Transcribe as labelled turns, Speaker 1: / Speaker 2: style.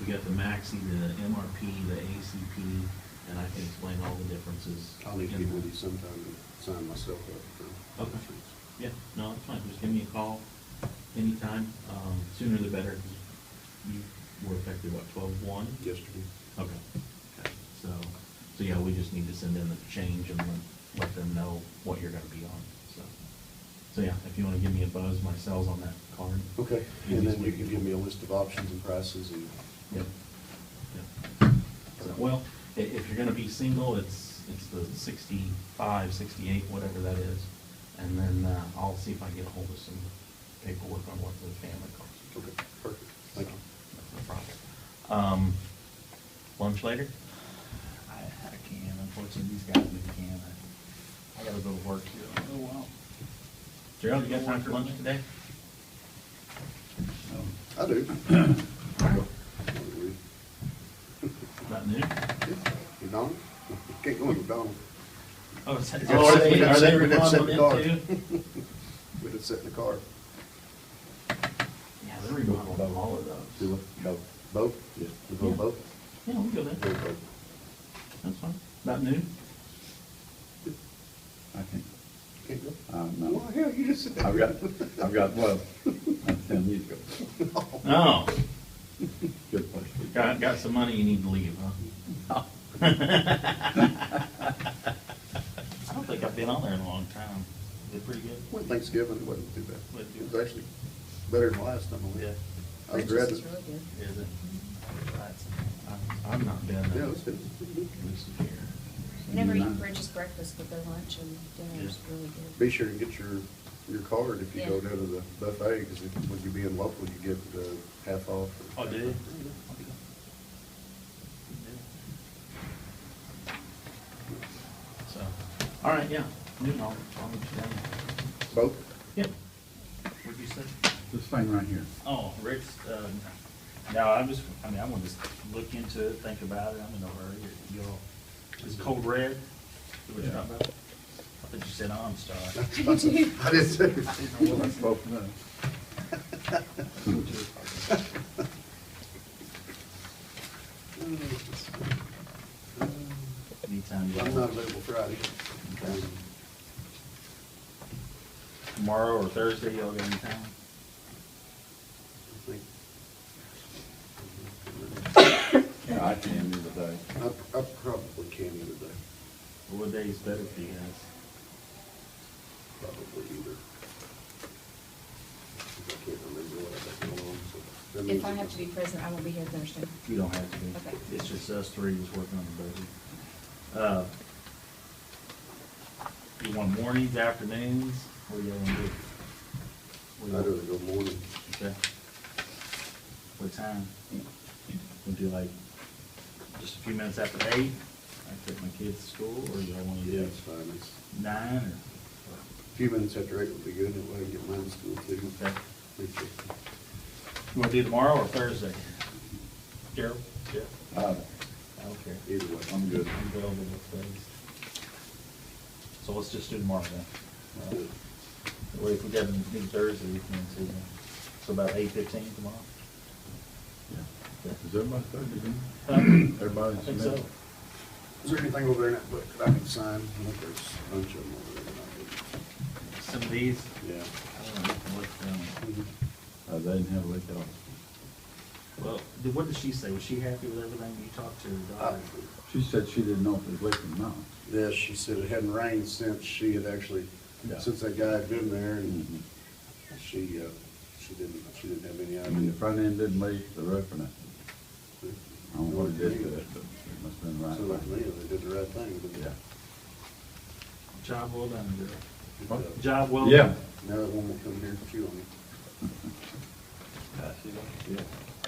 Speaker 1: We got the maxi, the MRP, the ACP, and I can explain all the differences.
Speaker 2: I'll need to
Speaker 1: in
Speaker 2: get with
Speaker 1: that.
Speaker 2: you sometime and sign myself up for
Speaker 1: Okay.
Speaker 2: insurance.
Speaker 1: Yeah, no, that's fine, just give me a call anytime, um, sooner the better, 'cause you were effective, what, twelve-one?
Speaker 2: Yesterday,
Speaker 1: Okay, okay, so, so yeah, we just need to send in the change and let, let them know what you're gonna be on, so. So yeah, if you wanna give me a buzz, my cell's on that card.
Speaker 2: okay, and
Speaker 1: Easiest
Speaker 2: then
Speaker 1: way
Speaker 2: you
Speaker 1: to
Speaker 2: can
Speaker 1: do
Speaker 2: give
Speaker 1: it.
Speaker 2: me a list of options and prices and,
Speaker 1: Yep, yep. So, Well, i- if you're gonna be single, it's, it's the sixty-five, sixty-eight, whatever that is. And then, uh, I'll see if I can get ahold of some paperwork on what the family costs.
Speaker 2: okay, perfect, thank you.
Speaker 1: No problem. Um, lunch later?
Speaker 3: I, I can, unfortunately, these guys, we can. I- I gotta go to work here in
Speaker 1: Oh,
Speaker 3: a little while.
Speaker 1: Gerald, you got time for lunch today?
Speaker 2: I do.
Speaker 1: About noon?
Speaker 2: McDonald's? Can't go in McDonald's,
Speaker 1: Oh, is that-
Speaker 2: Is that
Speaker 1: oh, are
Speaker 2: seven-
Speaker 1: they, are
Speaker 2: that's
Speaker 1: they
Speaker 2: seven- that's
Speaker 1: remodeling
Speaker 2: seven
Speaker 1: it too?
Speaker 2: we just sit in the car.
Speaker 1: Yeah, they're remodeling all of those.
Speaker 2: Both. Both? Yeah. We go
Speaker 1: Yeah.
Speaker 2: both?
Speaker 1: Yeah, we go
Speaker 2: Go
Speaker 1: there.
Speaker 2: both.
Speaker 1: That's fine. About noon?
Speaker 4: I think,
Speaker 2: Can't go?
Speaker 4: uh,
Speaker 2: Well,
Speaker 4: no,
Speaker 2: hell, you just sit there.
Speaker 4: I've got, I've got, well, that's ten years ago,
Speaker 1: Oh,
Speaker 4: good place to go.
Speaker 1: got, got some money you need to leave, huh? I don't think I've been on there in a long time. Is it pretty good?
Speaker 2: Went Thanksgiving, it wasn't too bad.
Speaker 1: Wasn't too
Speaker 2: It was actually better than last time I went. I was glad that,
Speaker 5: Oh, It's really good.
Speaker 1: Is it? I- I've not been.
Speaker 2: yeah,
Speaker 1: there.
Speaker 2: it was good.
Speaker 1: This year.
Speaker 5: Whenever you
Speaker 4: Nine.
Speaker 5: purchase breakfast with their lunch and dinner is really
Speaker 2: Be
Speaker 5: good.
Speaker 2: sure and get your, your card if you go
Speaker 5: Yeah.
Speaker 2: down to the buffet, because when you're being local, you get uh, half off.
Speaker 1: Oh, do you? So, all right, yeah, noon, I'll, I'll meet you down there.
Speaker 2: Both?
Speaker 1: Yep. What'd you say?
Speaker 4: This thing right here,
Speaker 3: Oh, Rick's, um, no, I'm just, I mean, I'm gonna just look into it, think about it, I'm in no hurry, y'all. Is cold red, is what you're talking about? I thought you said OnStar.
Speaker 2: I didn't say.
Speaker 4: well, that's both of them.
Speaker 3: Anytime
Speaker 2: I'm not
Speaker 3: y'all,
Speaker 2: available Friday.
Speaker 3: tomorrow or Thursday, y'all got any time?
Speaker 2: I
Speaker 4: Yeah, I can do the day.
Speaker 2: think- I I probably can either day,
Speaker 3: Or What day is better for you guys?
Speaker 2: probably either. I can't remember what I've got going on, so. that means
Speaker 5: If I
Speaker 2: it
Speaker 5: have to
Speaker 2: was-
Speaker 5: be present, I won't be here Thursday.
Speaker 3: You don't have to be.
Speaker 5: Okay.
Speaker 3: It's just us three just working on the budget. Uh, You want mornings, afternoons, what do y'all want to do? What do
Speaker 2: I'd
Speaker 3: y'all-
Speaker 2: rather go morning.
Speaker 3: Okay. What time? We'll do like, just a few minutes after eight, I take my kids to school, or y'all want to
Speaker 2: Yeah,
Speaker 3: do
Speaker 2: it's fine. It's
Speaker 3: nine, or?
Speaker 2: a few minutes after eight would be good, and I can get mine to school too.
Speaker 3: Okay.
Speaker 2: It's just-
Speaker 3: You want to do tomorrow or Thursday? Gerald? Yeah.
Speaker 4: Uh,
Speaker 3: I don't care.
Speaker 2: Either way.
Speaker 4: I'm good.
Speaker 3: I'm good over both days. So let's just do tomorrow then. Uh, That way if we got a meeting Thursday, we can see them. So about eight fifteen tomorrow?
Speaker 4: Yeah. Is everybody Thursday, then?
Speaker 1: Uh,
Speaker 3: I
Speaker 4: Everybody's.
Speaker 3: think so.
Speaker 2: Is there anything over there in that book that I can sign? I think there's a bunch of them over there. that
Speaker 3: Some of these,
Speaker 2: I didn't- Yeah.
Speaker 3: I don't know what, um,
Speaker 4: Uh, they didn't have a lick on.
Speaker 3: well, did- what did she say? Was she happy with everything you talked to her daughter?
Speaker 4: She said she didn't know if it was lick or not.
Speaker 2: Yes, Uh, she said it hadn't rained since she had actually,
Speaker 4: Yeah.
Speaker 2: since that guy had been there,
Speaker 4: Mhm.
Speaker 2: and she, uh, she didn't, she didn't have any
Speaker 4: I mean,
Speaker 2: idea.
Speaker 4: the front end didn't leak, the roof and that. I don't know what it did to it, but it must've been right.
Speaker 2: Sounded like to me, they did the right thing, but.
Speaker 4: Yeah.
Speaker 3: Job well done, girl.
Speaker 2: but, uh,
Speaker 3: Job well done.
Speaker 4: Yeah.
Speaker 2: Now that one will come here and chew on it.
Speaker 4: Yeah.